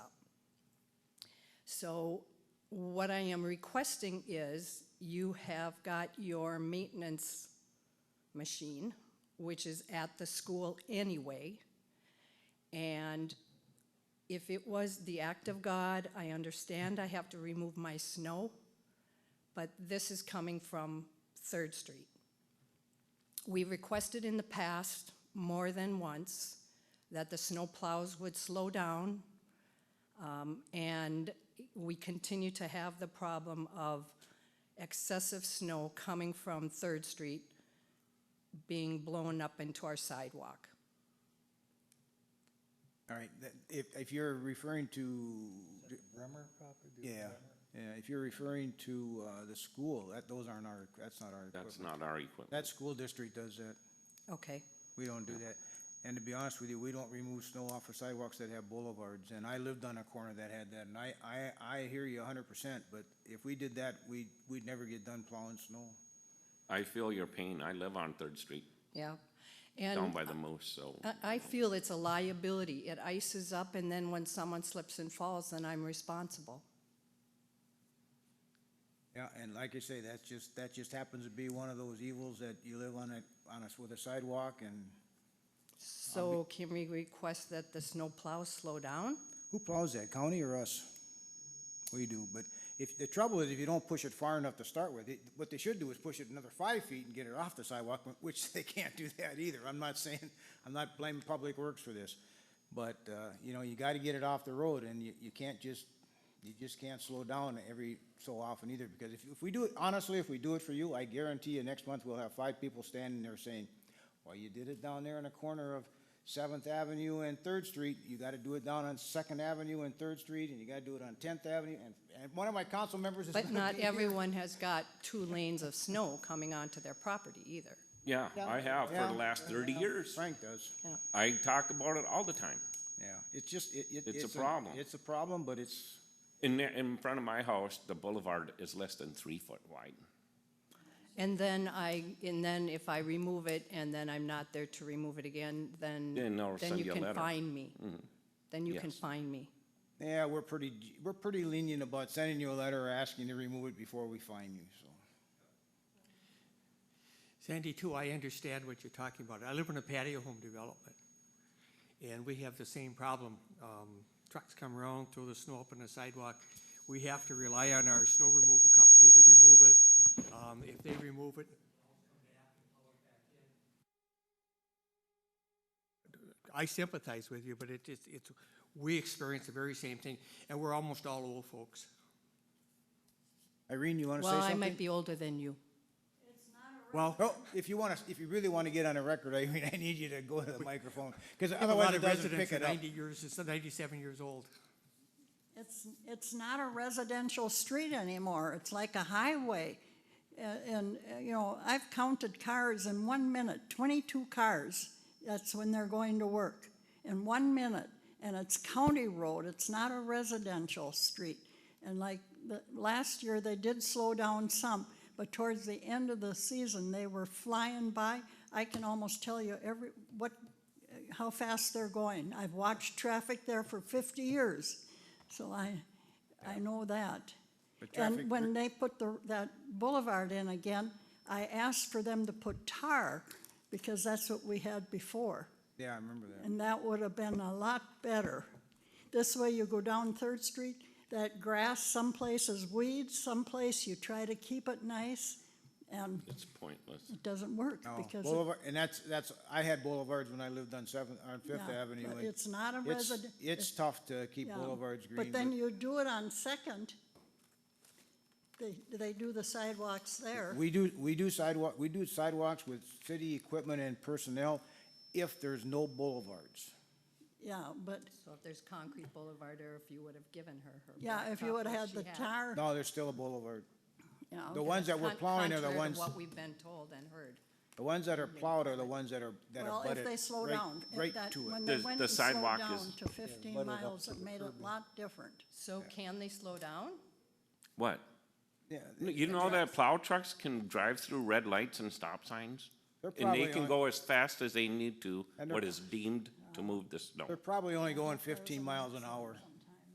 So what I am requesting is you have got your maintenance machine, which is at the school anyway. And if it was the act of God, I understand I have to remove my snow, but this is coming from Third Street. We requested in the past, more than once, that the snow plows would slow down, um, and we continue to have the problem of excessive snow coming from Third Street being blown up into our sidewalk. All right, that- if, if you're referring to, Bremer property? yeah, yeah, if you're referring to, uh, the school, that, those aren't our, that's not our That's equipment. not our equipment. That school district does that. Okay, We don't do that. And to be honest with you, we don't remove snow off of sidewalks that have boulevards, and I lived on a corner that had that, and I, I, I hear you hundred percent, but if we did that, we, we'd never get done plowing snow. I feel your pain. I live on Third Street, yeah. down And by the uh, moose, so I, I feel it's a liability. It ices up, and then when someone slips and falls, then I'm responsible. Yeah, and like I say, that's just, that just happens to be one of those evils that you live on a, on a, with a sidewalk, and So can we request that the snow plows slow down? Who plows that, county or us? We do, but if, the trouble is if you don't push it far enough to start with, it, what they should do is push it another five feet and get it off the sidewalk, which they can't do that either. I'm not saying, I'm not blaming Public Works for this. But, uh, you know, you gotta get it off the road and you, you can't just, you just can't slow down every so often either. Because if, if we do it, honestly, if we do it for you, I guarantee you next month we'll have five people standing there saying, well, you did it down there in the corner of Seventh Avenue and Third Street, you gotta do it down on Second Avenue and Third Street, and you gotta do it on Tenth Avenue, and, and one of my council members is gonna But not be here. everyone has got two lanes of snow coming onto their property either. yeah, I have for Yeah. the last thirty years. Frank does, I talk about it all the time. yeah, it's just, it, it. It's a problem. It's a problem, but it's, In there, in front of my house, the boulevard is less than three foot wide. And then I, and then if I remove it and then I'm not there to remove it again, then, Then I'll then send you you a can letter. Mm-hmm. find me. Then you can Yes. find me. yeah, we're pretty, we're pretty lenient about sending you a letter or asking to remove it before we fine you, so. Sandy, too, I understand what you're talking about. I live in a patio home development. And we have the same problem. Um, Trucks come around, throw the snow up on the sidewalk. We have to rely on our snow removal company to remove it. Um, If they remove it. I sympathize with you, but it, it's, it's- we experience the very same thing, and we're almost all old folks. Irene, you wanna say Well, something? I might be older than you. Well, Oh, if you wanna, if you really wanna get on a record, Irene, I need you to go to the microphone, cause a otherwise lot it of doesn't residents pick are it up. ninety years, it's ninety-seven years old. It's, it's not a residential street anymore, it's like a highway. A- And, uh, you know, I've counted cars in one minute, twenty-two cars, that's when they're going to work, in one minute. And it's county road, it's not a residential street. And like, the, last year, they did slow down some, but towards the end of the season, they were flying by. I can almost tell you every, what, how fast they're going. I've watched traffic there for fifty years, so I, I know that. But traffic- And when they put the, that boulevard in again, I asked for them to put tar, because that's what we had before, Yeah, I remember that. and that would have been a lot better. This way you go down Third Street, that grass, some places weeds, some place you try to keep it nice, and It's pointless. it doesn't work, No, because. it- Oh, Boulevard, and that's, that's, I had boulevards when I lived on Seventh, on Fifth Yeah, Avenue. but and it's not a it's- resident- It's tough to keep Yeah, boulevards green. But then you do it on Second, they, they do the sidewalks there. We do, we do sidewalk, we do sidewalks with city equipment and personnel if there's no boulevards. Yeah, but, So if there's concrete boulevard or if you would have given her her. yeah, if you blacktop would have that had she the tar, No, there's still a boulevard. yeah, The okay. ones that we're Con- plowing are the contrary to ones, What we've been told and heard. the ones that are plowed are the ones that are, that Well, are butted if they slow right- down, if right that- to it. When they The- went the and slowed sidewalk is- down to fifteen butted up miles, to it the made curb it line. a lot different. So can they slow down? What? Yeah, You know that plow trucks can drive through red lights and stop signs? They're And they probably can on- go as fast as they need to, And they're- what is deemed to move the snow. They're probably only going fifteen miles an hour.